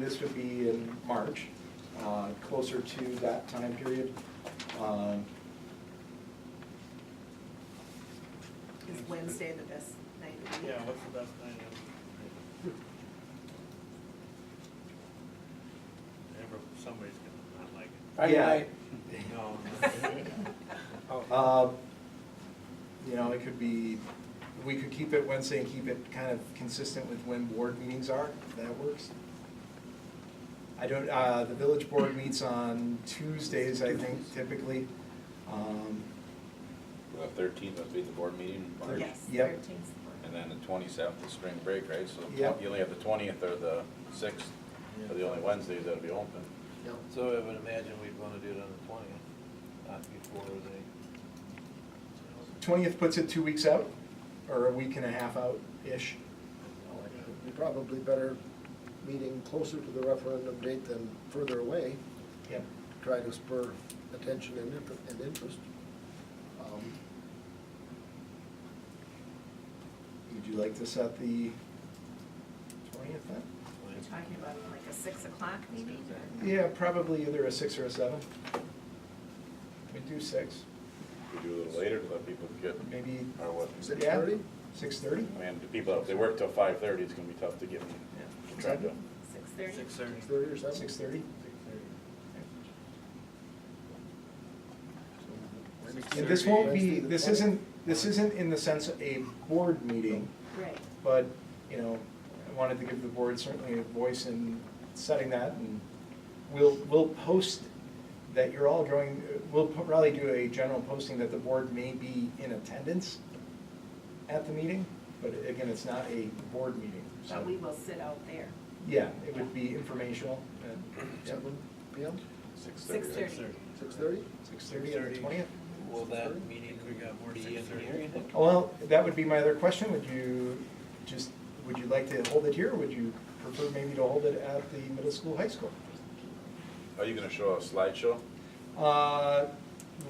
This would be in March, uh, closer to that time period. Um, Is Wednesday the best night of the week? Yeah, what's the best night of? Every- Somebody's gonna not like it. Yeah. No. Uh, You know, it could be, we could keep it Wednesday and keep it kind of consistent with when board meetings are, if that works. I don't, uh, the village board meets on Tuesdays, I think typically. Um, The thirteenth would be the board meeting in March. Yes, Yep. thirteenth. And then the twenty-seventh is spring break, right? So Yep. you only have the twentieth or the sixth, are the only Wednesdays that'll be open. So I would imagine we'd wanna do it on the twentieth, not before the, 20th puts it two weeks out, or a week and a half out-ish. You're probably better meeting closer to the referendum date than further away, Yep. try to spur attention and inter- and interest. Um, Would you like to set the 20th then? We're talking about like a six o'clock meeting? or- Yeah, probably either a six or a seven. We do six, We do a little later to let people get, maybe, or what? Six Yeah. thirty? six thirty? Oh, I mean, the people, if they work till five-thirty, it's gonna be tough to get them, to try to, Six thirty? Six thirty. Six thirty or seven? Six thirty? And this won't be, this isn't, this isn't in the sense of a board meeting, Right. but, you know, I wanted to give the board certainly a voice in setting that, and we'll, we'll post that you're all going, we'll probably do a general posting that the board may be in attendance at the meeting, but again, it's not a board meeting, so. But we will sit out there. Yeah, it would be informational at Seven P M, six-thirty. Six thirty. six thirty? six thirty on the 6:30. twentieth. will that 6:30? meeting We got more be in 6:30. here, you think? Well, that would be my other question, would you just, would you like to hold it here, or would you prefer maybe to hold it at the middle school, high school? Are you gonna show a slideshow? Uh,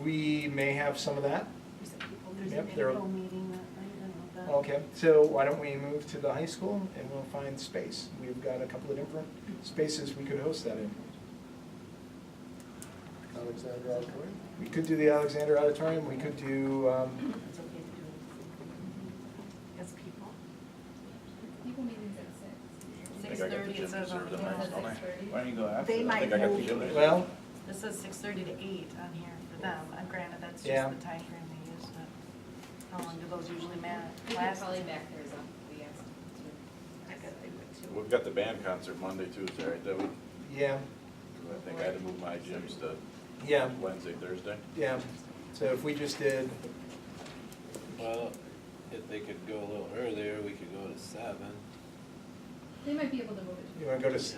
we may have some of that, There's a people Yep, meeting. there- Info meeting that night, I don't know okay, so why don't we move to the high school and we'll find space, we've got a couple of different spaces we could host that in. Alexander Auditorium? We could do the Alexander Auditorium, we could do, um, It's okay to do it. As people. People meetings at I six. think I got the gym reserved on mine, don't I? Why don't you go after They that? I think might I got the move gym it. reserved. well, This says six thirty to eight on here for them, Uh, granted, that's just Yeah. the time frame they use, but how long do those usually ma- We can last? probably back theirs up, we asked them I guess they would too. We've got the band concert Monday, Tuesday, right, that week? yeah, I think I had to move my gyms to yeah, Wednesday, Thursday. yeah, so if we just did, Well, if they could go a little earlier, we could go to seven. They might be able to move it. you wanna go to, s-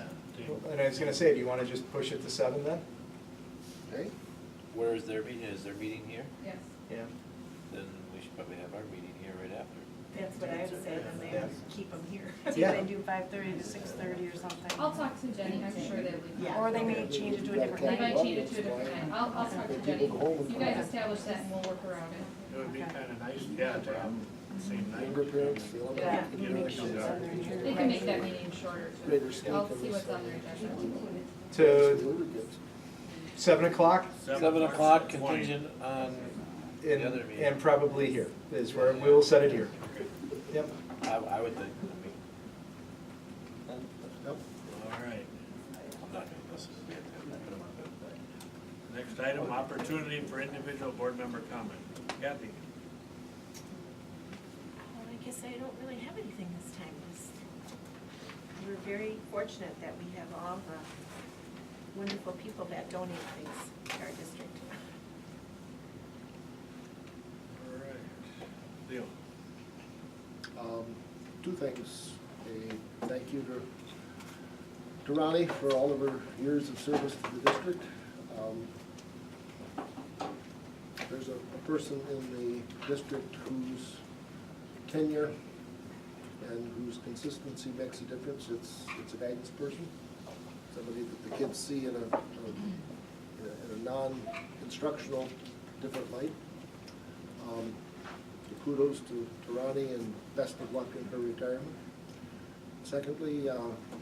and I was gonna say, do you wanna just push it to seven then? Okay, Where is their meeting? Is their meeting here? Yes. Yeah. Then we should probably have our meeting here right after. That's what I would say, then Yeah. they keep them here. See, Yeah. they do five thirty to six thirty or something. I'll talk to Jenny, I'm sure that we. Yeah. Or they may change it to a different They night. might change it to a different night, I'll, I'll talk to Jenny, People go home and you come guys back. establish that and we'll work around it. It would be kinda nice, yeah, to have the same night. Younger parents, the Yeah, elementary. you make sure it's on their agenda. They can make that meeting shorter Greater too. I'll sleep see in what's this on their agenda. To Lubricants. seven o'clock Seven o'clock March 20. contingent on the and, other meeting. and probably here is where we will set it here. Yep. I, I would think, I mean, Yep. All right. I'm not gonna listen to that. I'm not gonna want that. Next item, opportunity for individual board member comment. Kathy? Well, I guess I don't really have anything this time. This- We're very fortunate that we have all the wonderful people that donate things to our district. All right. Leo? Um, Two things. A thank you to, to Ronnie for all of her years of service to the district. Um, There's a a person in the district whose tenure and whose consistency makes a difference. It's, it's a guidance person, somebody that the kids see in a, in a- in a non-instructional, different light. Um, Kudos to to Ronnie and best of luck in her retirement. Secondly, uh,